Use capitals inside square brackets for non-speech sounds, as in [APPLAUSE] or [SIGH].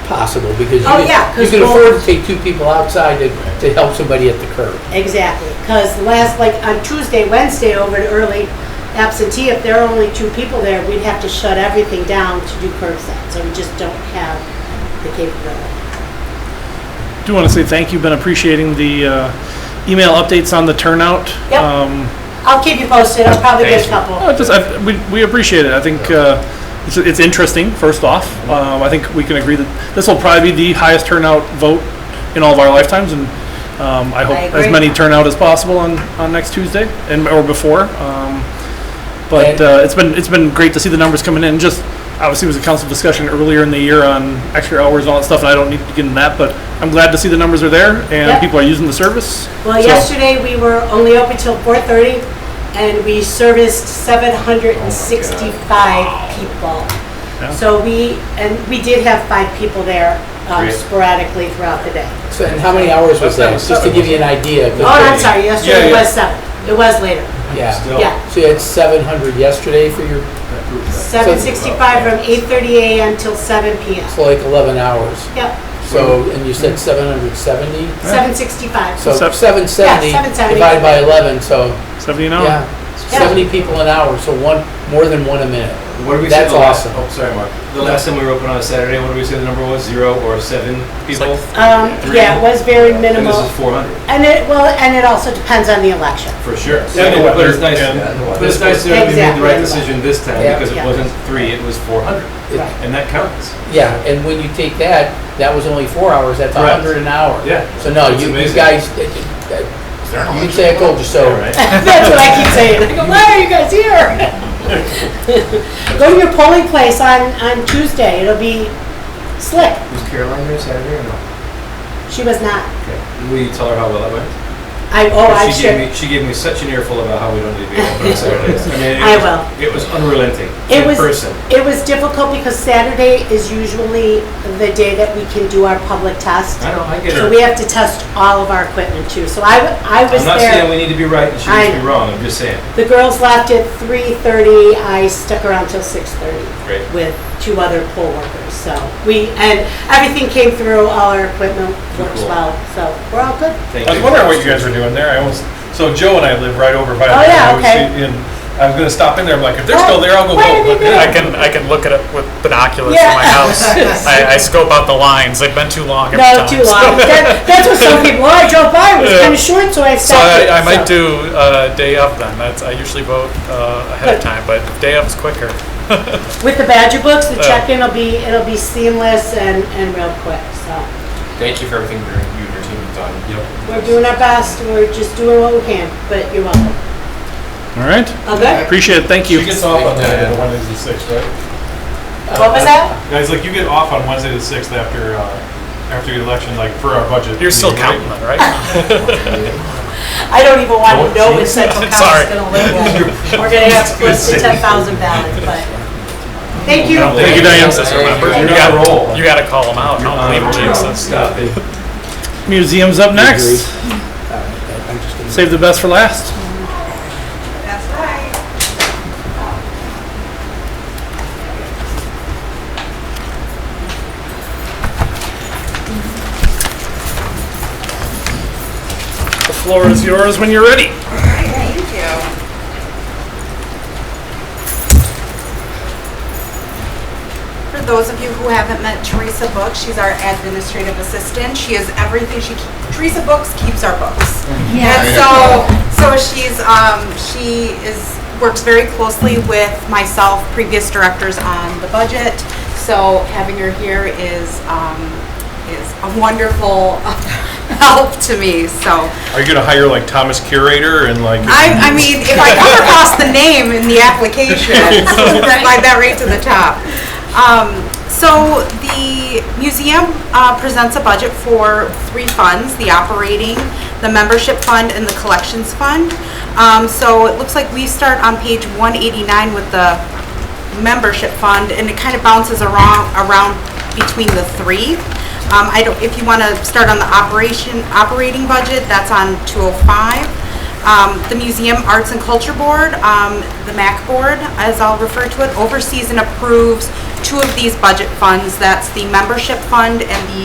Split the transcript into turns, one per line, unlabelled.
possible, because you
Oh, yeah,
can, you
'cause
can
we'll-
afford to take two people outside to, to help somebody at the curb.
Exactly, because last, like, on Tuesday, Wednesday, over at early absentee, if there are only two people there, we'd have to shut everything down to do curbside, so we just don't have the capability.
Do want to say thank you, been appreciating the uh, email updates on the turnout.
Yep.
Um,
I'll keep you posted, I'll probably get a couple.
I just, Oh, I, we, we appreciate it. I think uh, it's, it's interesting, first off. Um, I think we can agree that this will probably be the highest turnout vote in all of our lifetimes, and um, I hope as
agree.
many turnout as possible on, on next Tuesday and or before. Um, but
And-
uh, it's been it's been great to see the numbers coming in. Just obviously it was a council discussion earlier in the year on extra hours and all that stuff, and I don't need to get into that, but I'm glad to see the numbers are there and
Yep.
people are using the service.
Well,
So-
yesterday, we were only open till four-thirty, and we serviced seven hundred and sixty-five people.
Yeah.
So we, and we did have five people there um, sporadically throughout the day.
So, and how many hours was that? Just to give you an idea.
Oh, I'm sorry, yesterday
Yeah, yeah.
was seven, it was later,
Yeah.
yeah.
So you had seven hundred yesterday for your,
Seven sixty-five from eight thirty AM till seven PM.
so like eleven hours.
Yep,
So,
Mm-hmm.
and you
Mm-hmm.
said seven hundred seventy?
seven sixty-five.
So
Sev-
seven seventy
Yeah, 770.
divided by eleven, so,
70
Oh.
an hour.
yeah.
Yeah.
Seventy people an hour, so one, more than one a minute.
What did we
That's
say the last-
awesome.
Oh, sorry, Mark. The last time we were open on a Saturday, what did we say the number was? Zero or seven people?
Um, yeah, it was very
And this
minimal.
is 400,
And it, well, and it also depends on the
[LAUGHS]
election.
for sure.
Yeah, no,
But it's nice,
yeah,
but it's nice that we made the right
Exactly.
decision this time
Yeah.
because
Yeah.
it wasn't three, it was 400.
It-
Right.
And that counts.
Yeah, and when you take that, that was only four hours, that's a
Correct.
hundred an hour.
Yeah.
So no,
It's
you you
amazing.
guys, that- that- you can say I told you so.
All right.
That's what I keep saying. I go, why are you guys here? Go to your polling place on, on Tuesday, it'll be slick.
[LAUGHS] Was Caroline here Saturday or no?
She was not.
Okay. Will you tell her how well that went?
I, oh, I
She
should.
gave me, she gave me such an earful about how we don't need to be open
[LAUGHS]
on Saturdays. I mean, it
I
was-
will.
It was unrelenting,
It
in
was,
person.
it was difficult because Saturday is usually the day that we can do our public test.
I know, I get
So
it.
we have to test all of our equipment too. So I, w- I was
I'm not saying
there.
we need to be right and she
I
needs to be
know.
wrong, I'm just saying.
The girls left at three thirty. I stuck around till six thirty
Great.
with two other poll workers. So we, and everything came through, all our equipment works
Cool.
well. So we're all good.
Thank
I was
you.
wondering what you guys were doing there. I almost, so Joe and I live right over by.
Oh,
there.
yeah,
I always
okay.
see- And I was gonna stop in there. I'm like, if they're
Oh,
still there, I'll go
why are
vote.
they there?
I can I can look at it with binoculars
Yeah.
in my
[LAUGHS]
house. I, I scope out the lines. They've been too long. Every
No,
time.
too
[LAUGHS]
long. That, that's what some people, oh, I drove by, it was
Yeah.
kind of short, so I
So
stopped. it."
I, I might
So-
do uh, day of then. That's I usually vote uh, ahead of time, but day of is quicker.
With the Badger books, the
Yeah.
check-in will be, it'll be seamless and, and real quick, so.
Thank you for everything your- you and your team have done. Yep.
We're doing our best, we're just doing what we can, but you're welcome.
All right.
Okay?
Appreciate it. Thank you.
She gets off on that, uh, Wednesday the sixth, right?
What was that?
Guys, like you get off on Wednesday the sixth after, uh, after the election, like for our budget.
You're still
meeting, right?
counting them,
[LAUGHS]
right?
I don't even want to know what [LAUGHS] Central
Sorry.
Council's gonna live with. We're gonna [LAUGHS] have close to ten thousand ballots, but, thank you.
Thank you, Diane.
Just remember,
You're
you
on a
got
roll.
you got to call them out. Don't believe
Um,
Jesus.
Stop it.
Uh, Museum's up
Agree.
next.
Uh, I'm just gonna-
Save the best for last. The floor is yours when you're ready.
Thank you. For those of you who haven't met Teresa Book, she's our administrative assistant. She is everything, she, Teresa Books keeps our books. And so, so she's, um, she is, works very closely with myself, previous directors on the budget. So having her here is, um, is a wonderful [LAUGHS] help to me, so.
Are you gonna hire like Thomas Curator and like?
I, I mean, if I come across the name in the application, then I'd that right to the top. Um, so the museum uh, presents a budget for three funds, the operating, the membership fund, and the collections fund. Um, so it looks like we start on page 189 with the membership fund, and it kind of bounces around, around between the three. Um, I don't, if you want to start on the operation, operating budget, that's on 205. Um, The Museum Arts and Culture Board, um, the MAC Board, as I'll refer to it, oversees and approves two of these budget funds. That's the membership fund and the